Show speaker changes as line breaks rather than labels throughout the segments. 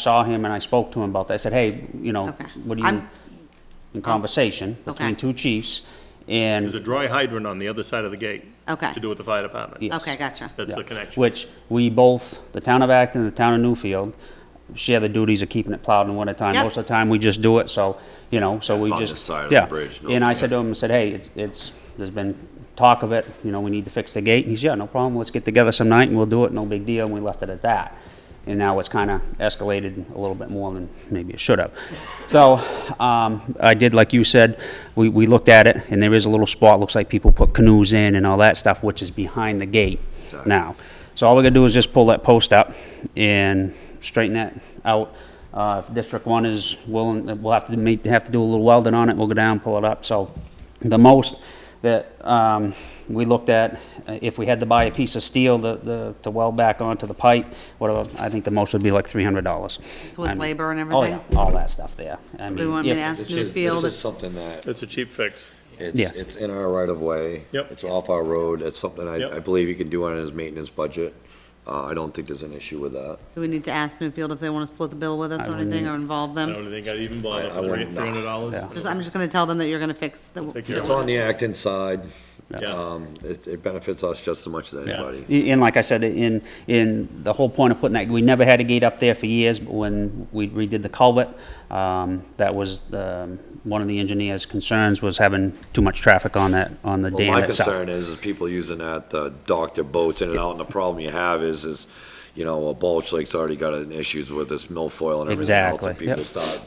saw him and I spoke to him about that. I said, hey, you know,
Okay.
what do you,
I'm- Oh,
in conversation between
Okay.
two chiefs,
There's a
and,
dry hydrant on the other side of the gate.
Okay.
To do with the fire department.
Yeah. yes.
Okay, gotcha.
That's the
Yeah.
connection.
which we both, the town of Acton and the town of Newfield, share the duties of keeping it plowed in winter time.
Yep.
Most of the time, we just do it, so, you know, so we
on
just.
this side of the
yeah.
bridge, no-
And I said to him, I said, hey, it's, it's, there's been talk of it, you know, we need to fix the gate. And he's, yeah, no problem, let's get together some night and we'll do it, no big deal, and we left it at that. And now it's kind of escalated a little bit more than maybe it should have. So, um, I did, like you said, we, we looked at it, and there is a little spot, looks like people put canoes in and all that stuff, which is behind the gate now. So all we gotta do is just pull that post up and straighten that out. Uh, if District One is willing, we'll have to make, have to do a little welding on it, we'll go down, pull it up, so. The most that, um, we looked at, uh, if we had to buy a piece of steel to, the, to weld back onto the pipe, whatever, I think the most would be like three hundred dollars.
With labor and
Oh, yeah,
everything?
all that stuff there. I
Do you
mean,
want me
if-
to ask
This is,
Newfield?
this is
if-
something that,
It's a cheap fix.
it's,
Yeah.
it's in our right of way.
Yep.
It's off our road, it's something
Yep.
I, I believe he can do on his maintenance budget. Uh, I don't think there's an issue with that.
Do we need to ask Newfield if they want to split the bill with us or anything, or involve
I
them?
don't think I'd even bother
I- I
for three
wouldn't, no.
hundred dollars.
Yeah.
Just, I'm just gonna tell them that you're gonna fix the.
Take care
the-
of
It's on the Acton side,
Yeah.
um, it, it benefits us just as much as anybody.
Yeah. And like I said, in, in the whole point of putting that, we never had a gate up there for years, but when we redid the culvert, um, that was, um, one of the engineer's concerns was having too much traffic on that, on the
Well,
dam
my
itself.
concern is, is people using that, uh, dock their boats in and out, and the problem you have is, is, you know, well, Bulge Lake's already got an issues with this milfoil and everything else, and
Exactly, yep.
people start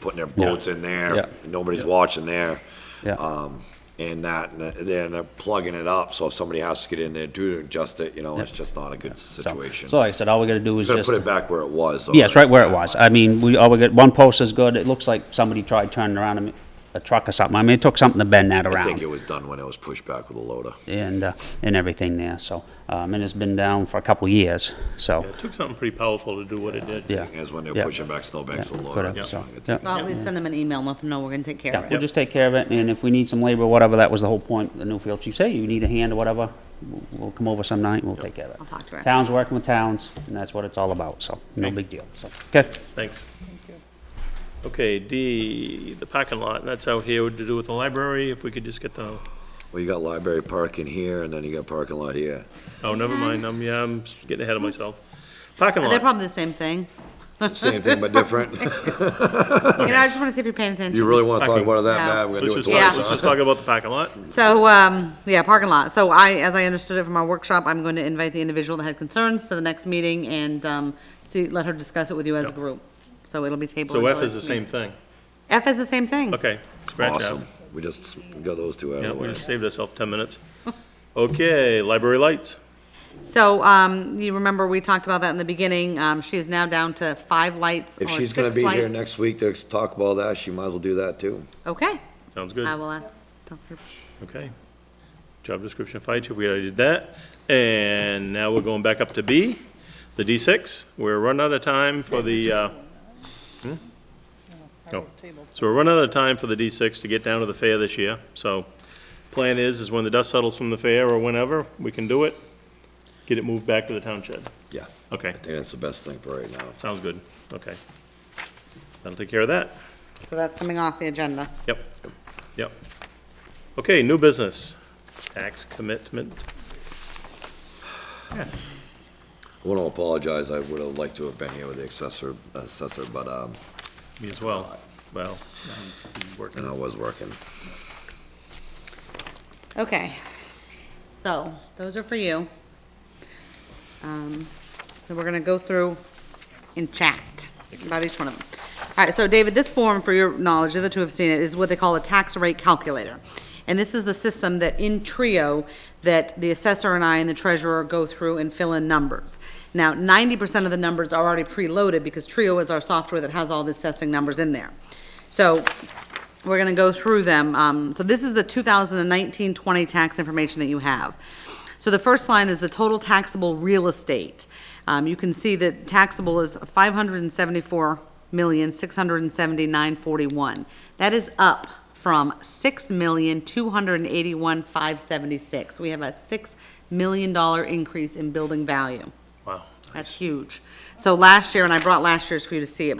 putting their boats in
yeah,
there, and nobody's watching there.
Yeah.
Um, and that, and then they're plugging it up, so if somebody has to get in there to adjust it, you know, it's just not a good
So-
situation.
So like I said, all we gotta do is
Gotta
just.
put it back where it was. though,
Yes, right where it was. I mean, we, all we got, one post is good. It looks like somebody tried turning around a m- a truck or something. I mean, it took something to bend that
I think it
around
was done when it was pushed back with a loader.
and, uh, and everything there, so. Um, and it's been down for a couple of years, so,
It took something pretty powerful to do what it did.
yeah.
Is when they were
Yeah.
pushing back snowbanks with a
Yeah,
loader.
correct,
that's
so,
when I could
yeah.
think of
Well, at least send them an email and let them know we're gonna take care
Yeah,
of
we'll
it.
just take care of it, and if we need some labor, or whatever, that was the whole point, the Newfield chief said, "Hey, you need a hand or whatever, we'll- we'll come over some night, and we'll take care of it.
I'll talk to her.
Towns working with towns, and that's what it's all about, so, no big deal, so, okay?
Thanks. Okay, D, the parking lot, that's out here to do with the library, if we could just get the,
Well, you got library parking here, and then you got parking lot here.
oh, never mind, I'm, yeah, I'm getting ahead of myself. Parking
They're
lot,
probably the same thing.
Same thing but different.
You know, I just wanna see if you're paying attention.
You really want to talk
Parking.
about it that
Yeah.
bad, we're gonna do it
let's just,
Yeah.
twice,
let's
huh?
just talk about the parking lot.
So, um, yeah, parking lot. So I, as I understood it from our workshop, I'm going to invite the individual that had concerns to the next meeting and, um, see, let her discuss it with you as a
Yep.
group. So it'll be tabled.
So
until
F is the
next
same
meeting.
thing.
F is the same thing.
Okay, scratch F.
Awesome, we just got those two out
Yeah,
of the
we
way.
just saved ourselves ten minutes. Okay, library lights.
So, um, you remember, we talked about that in the beginning. Um, she is now down to five lights or
If
six lights.
she's gonna be here next week to talk about that, she might as well do that too.
Okay,
Sounds good.
I will ask. tell her.
Okay. Job description, fire chief, we already did that. And now we're going back up to B, the D6. We're running out of time for the, uh, hmm? Oh. So we're running out of time for the D6 to get down to the fair this year. So plan is, is when the dust settles from the fair or whenever, we can do it. Get it moved back to the town shed.
Yeah,
Okay,
I think that's the best thing for right now.
sounds good. Okay. That'll take care of that.
So that's coming off the agenda.
Yep, yep. Okay, new business, tax commitment. Yes.
I wanna apologize, I would've liked to have been here with the assessor, assessor, but, um,
Me as well. Well, he's
and I
working.
was working.
Okay, so those are for you. Um, So we're gonna go through and chat about each one of them. All right, so David, this form, for your knowledge, the other two have seen it, is what they call a tax rate calculator. And this is the system that in Trio, that the assessor and I and the treasurer go through and fill in numbers. Now, ninety percent of the numbers are already preloaded because Trio is our software that has all the assessing numbers in there. So we're gonna go through them. Um, so this is the 2019-20 tax information that you have. So the first line is the total taxable real estate. Um, you can see that taxable is five hundred and seventy-four million, six hundred and seventy-nine forty-one. That is up from six million, two hundred and eighty-one, five seventy-six. We have a six million dollar increase in building value.
Wow.
That's huge. So last year, and I brought last year's for you to see it,